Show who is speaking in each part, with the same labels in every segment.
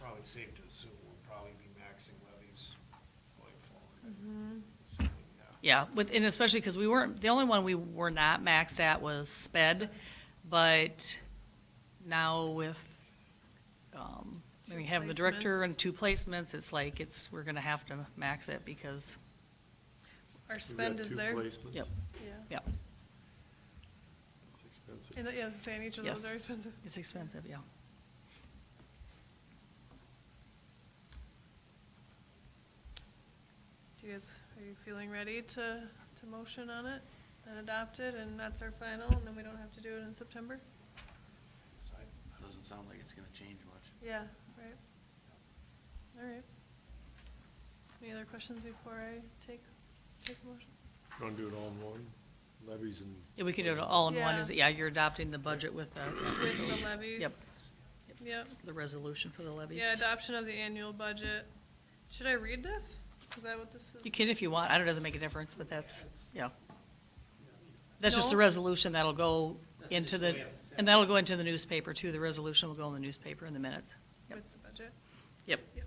Speaker 1: probably safe to assume we'll probably be maxing levies going forward.
Speaker 2: Mm-hmm.
Speaker 1: So, yeah.
Speaker 3: Yeah, with, and especially because we weren't, the only one we were not maxed at was sped, but now with, um, we have the director and
Speaker 2: placements.
Speaker 3: two placements, it's like, it's, we're gonna have to max it because,
Speaker 2: Our spend is there. Yeah.
Speaker 3: yep, yep,
Speaker 4: It's expensive.
Speaker 2: And, yeah, I was saying, each of those
Speaker 3: Yes.
Speaker 2: are expensive.
Speaker 3: it's expensive, yeah.
Speaker 2: Do you guys, are you feeling ready to, to motion on it and adopt it, and that's our final, and then we don't have to do it in September?
Speaker 1: So I-
Speaker 5: That doesn't sound like it's gonna change much.
Speaker 2: Yeah, right. All right. Any other questions before I take, take a motion?
Speaker 4: You want to do it all in one, levies and?
Speaker 3: Yeah, we could do it all in one, is, it?
Speaker 2: Yeah.
Speaker 3: yeah, you're adopting the budget with the.
Speaker 2: With
Speaker 3: those-
Speaker 2: the
Speaker 3: Yep.
Speaker 2: levies? Yep.
Speaker 3: The resolution for the levies.
Speaker 2: Yeah, adoption of the annual budget. Should I read this? Is that what this is?
Speaker 3: You can if you want, I know it doesn't make a difference, but that's, yeah. That's just the
Speaker 2: No.
Speaker 3: resolution that'll go
Speaker 5: That's
Speaker 3: into
Speaker 5: just
Speaker 3: the,
Speaker 5: the way
Speaker 3: and that'll go into the newspaper too, the resolution will go in the newspaper in the minutes. Yep,
Speaker 2: With the budget?
Speaker 3: yep.
Speaker 2: Yep.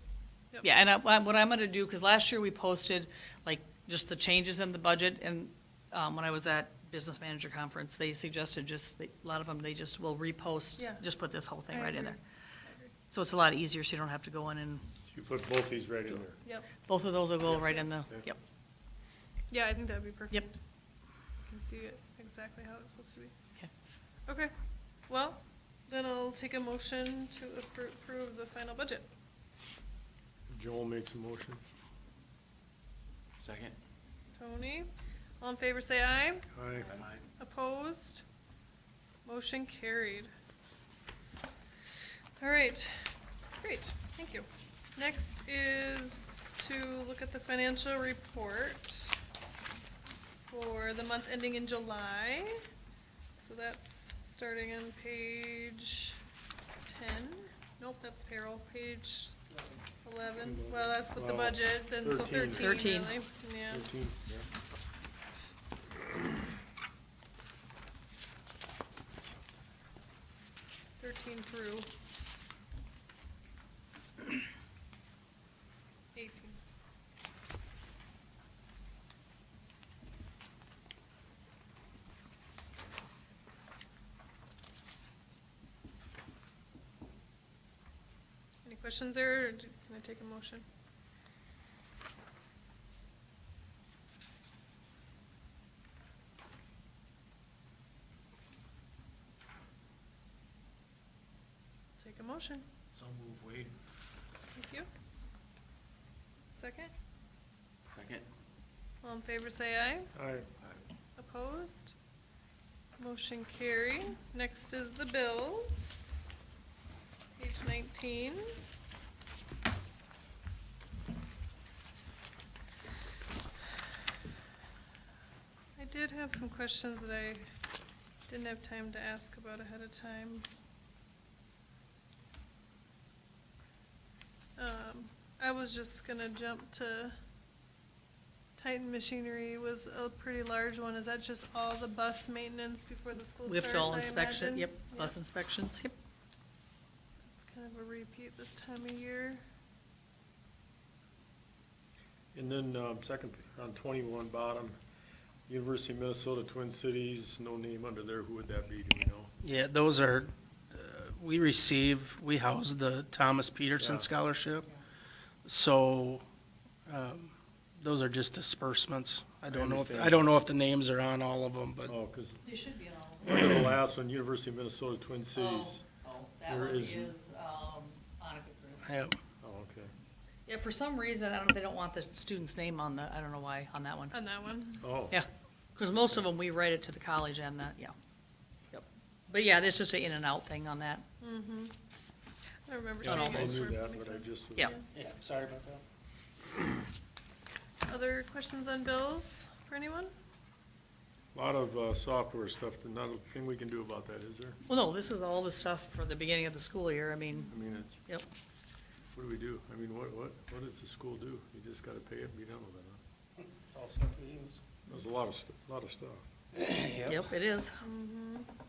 Speaker 2: Yep.
Speaker 3: Yeah, and I, I- what I'm gonna do, because last year we posted, like, just the changes in the budget, and, um, when I was at business manager conference, they suggested just, a lot of them, they just will repost,
Speaker 2: Yeah.
Speaker 3: just put this whole thing
Speaker 2: I
Speaker 3: right in
Speaker 2: agree.
Speaker 3: there. So it's a lot easier, so you don't have to go in and,
Speaker 4: You put both these right in there.
Speaker 2: Yep.
Speaker 3: both of those will go right in the,
Speaker 4: Yeah.
Speaker 3: yep,
Speaker 2: Yeah, I think that'd be perfect.
Speaker 3: Yep.
Speaker 2: I can see it exactly how it's supposed to be.
Speaker 3: okay.
Speaker 2: Okay, well, then I'll take a motion to appro- approve the final budget.
Speaker 4: Joel makes a motion.
Speaker 5: Second?
Speaker 2: Tony, all in favor say aye.
Speaker 4: Aye.
Speaker 5: Am I-
Speaker 2: Opposed? Motion carried. All right, great, thank you. Next is to look at the financial report for the month ending in July. So that's starting on page ten. Nope, that's payroll, page eleven. Well, that's with the
Speaker 4: Well,
Speaker 2: budget, then so
Speaker 4: thirteen.
Speaker 2: thirteen really,
Speaker 3: Thirteen.
Speaker 2: yeah.
Speaker 4: Thirteen, yeah.
Speaker 2: Thirteen through. Eighteen. Any questions there, or do- can I take a motion? Take a motion,
Speaker 1: So move Wade.
Speaker 2: thank you. Second,
Speaker 5: Second?
Speaker 2: all in favor say aye.
Speaker 4: Aye.
Speaker 2: Opposed? Motion carried. Next is the bills. Page nineteen. I did have some questions that I didn't have time to ask about ahead of time. Um, I was just gonna jump to Titan Machinery was a pretty large one. Is that just all the bus maintenance before the school
Speaker 3: We
Speaker 2: starts,
Speaker 3: have to all
Speaker 2: I
Speaker 3: inspection,
Speaker 2: imagine?
Speaker 3: yep, bus inspections, yep.
Speaker 2: It's kind of a repeat this time of year.
Speaker 4: And then, um, second, on twenty-one bottom, University of Minnesota Twin Cities, no name under there, who would that be, do we know?
Speaker 6: Yeah, those are, uh, we receive, we house the Thomas Peterson
Speaker 4: Yeah.
Speaker 6: Scholarship. So, um, those are just disbursements. I don't know, if- I
Speaker 4: understand.
Speaker 6: don't know if the names are on all of them, but
Speaker 4: Oh, because
Speaker 3: They should be all.
Speaker 4: the last one, University of Minnesota Twin Cities.
Speaker 3: Oh,
Speaker 4: that There one is- is,
Speaker 3: um,
Speaker 6: yeah,
Speaker 4: Oh, okay.
Speaker 3: Yeah, for some reason, I don't, they don't want the student's name on the, I don't know why, on that one.
Speaker 2: On that one?
Speaker 4: Oh.
Speaker 3: Yeah, because most of them, we write it to the college and the, yeah. Yep. But yeah, it's just an in and out thing on that.
Speaker 2: Mm-hmm. I remember
Speaker 4: Yeah,
Speaker 2: seeing
Speaker 4: I
Speaker 2: it.
Speaker 4: knew
Speaker 2: somewhere.
Speaker 4: that,
Speaker 2: Makes
Speaker 4: but I
Speaker 2: sense.
Speaker 4: just. was-
Speaker 3: Yeah.
Speaker 6: yeah, sorry about that.
Speaker 2: Other questions on bills for anyone?
Speaker 4: Lot of, uh, software stuff, but not a thing we can do about that, is there?
Speaker 3: Well, no, this is all the stuff for the beginning of the school year. I mean,
Speaker 4: I mean, it's,
Speaker 3: yep.
Speaker 4: what do we do? I mean, what, what, what does the school do? You just gotta pay it and be done with it, huh?
Speaker 6: It's all stuff we use.
Speaker 4: There's a lot of, st- lot of stuff.
Speaker 3: Yep, it is.
Speaker 2: Mm-hmm.